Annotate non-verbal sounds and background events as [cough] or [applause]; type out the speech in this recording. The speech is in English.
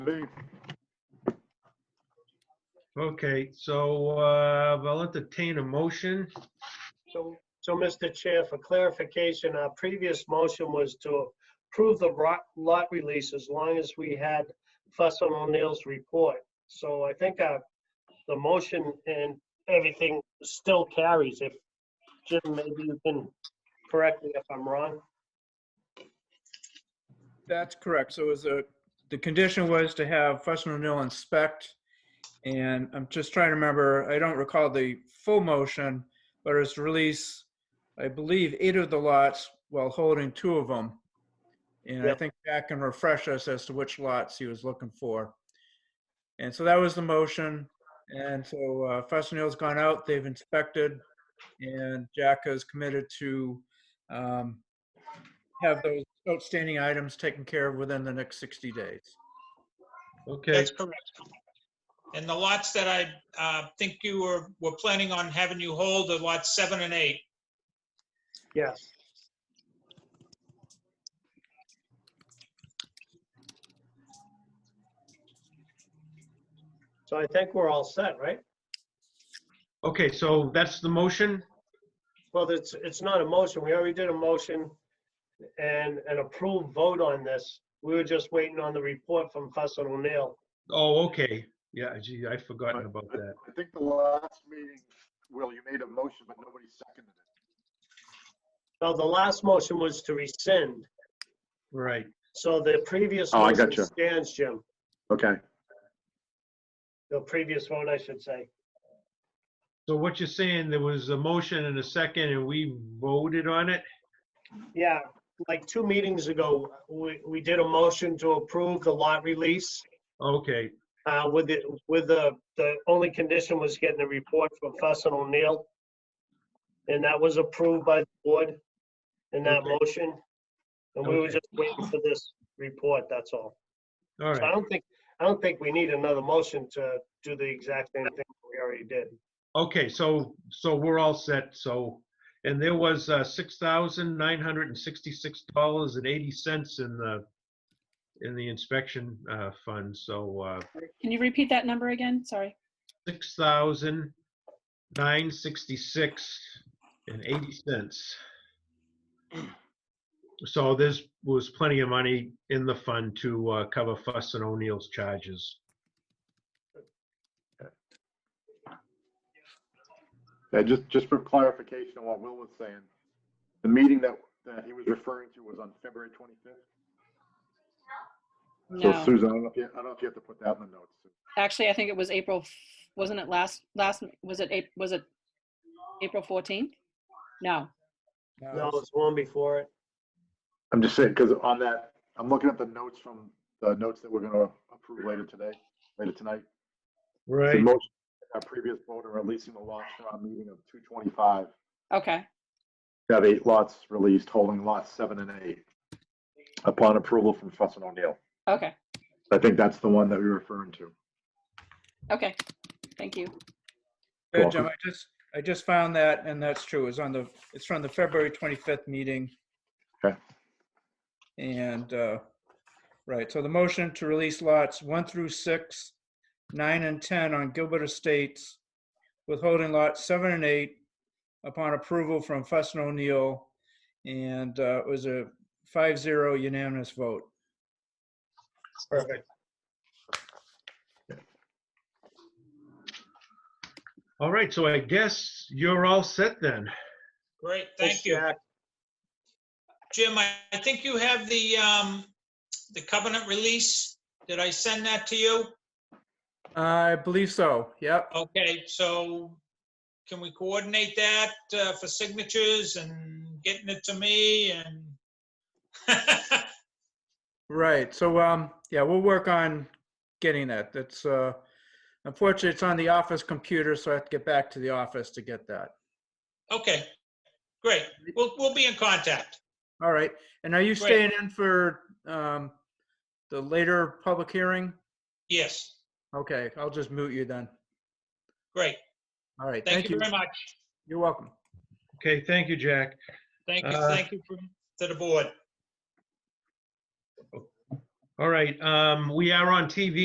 Indeed. Okay, so uh, I'll entertain a motion. So, so Mr. Chair, for clarification, our previous motion was to approve the ro- lot release as long as we had Fussin O'Neill's report. So I think uh, the motion and everything still carries. If, Jim, maybe you can correct me if I'm wrong. That's correct. So it was a, the condition was to have Fussin O'Neill inspect. And I'm just trying to remember, I don't recall the full motion, but it's release, I believe, eight of the lots while holding two of them. And I Yep. think Jack can refresh us as to which lots he was looking for. And so that was the motion. And so uh, Fussin O'Neill's gone out, they've inspected, and Jack is committed to um, have those outstanding items taken care of within the next 60 days. Okay, That's correct. And the lots that I uh, think you were, were planning on having you hold are lots seven and eight. Yes. So I think we're all set, right? okay, so that's the motion. Well, it's, it's not a motion. We already did a motion and an approved vote on this. We were just waiting on the report from Fussin O'Neill. Oh, okay. Yeah, gee, I'd forgotten about that. I think the last meeting, Will, you made a motion, but nobody seconded it. Now, the last motion was to rescind, Right. so the previous. Oh, I motion gotcha. Stands, Jim. Okay. The previous vote, I should say. So what you're saying, there was a motion and a second and we voted on it? Yeah, like two meetings ago, we, we did a motion to approve the lot release Okay, uh, with the, with the, the only condition was getting a report from Fussin O'Neill. And that was approved by the board in that Okay. motion. And we were Okay. just waiting for this report, that's all. all So I right. don't think, I don't think we need another motion to do the exact same thing we already did. Okay, so, so we're all set, so. And there was uh, $6,966.80 in the, in the inspection uh, fund, so uh, Can you repeat that number again? Sorry. six thousand nine sixty-six and eighty cents. So this was plenty of money in the fund to uh, cover Fuss and O'Neill's charges. Yeah, just, just for clarification on what Will was saying, the meeting that, that he was referring to was on February 25th. So No, Susan, I don't know if you, I don't know if you have to put that in the notes. actually, I think it was April, f- wasn't it last, last, was it, Ap- was it April 14th? No, No, it's one before it. I'm just saying, because on that, I'm looking at the notes from, the notes that we're going to approve later today, later tonight. The Right. motion, our previous vote on releasing the lots for our meeting of 225, okay, have eight lots released, holding lots seven and eight upon approval from Fussin O'Neill. okay, I think that's the one that we were referring to. okay. Thank you. Yeah, Jim, I just, I just found that, and that's true. It's on the, it's from the February 25th meeting. Okay. And, uh, right, so the motion to release lots 1 through 6, 9 and 10 on Gilbert Estates, withholding lots 7 and 8 upon approval from Fuss and O'Neill, and uh, it was a 5-0 unanimous vote. Perfect. All right, so I guess you're all set then. Great, thank you. Jim, I I think you have the, um, the covenant release. Did I send that to you? I believe so, yep. Okay, so can we coordinate that uh, for signatures and getting it to me and? [laughs] Right. So, um, yeah, we'll work on getting that. That's, uh, unfortunately, it's on the office computer, so I have to get back to the office to get that. Okay, great. We'll, we'll be in contact. All right. And are you Great. staying in for, um, the later public hearing? Yes, Okay, I'll just mute you then. great. All right. Thank you very much. You're welcome. Okay, thank you, Jack. Thank you, Uh, thank you for- to the board. All right, um, we are on TV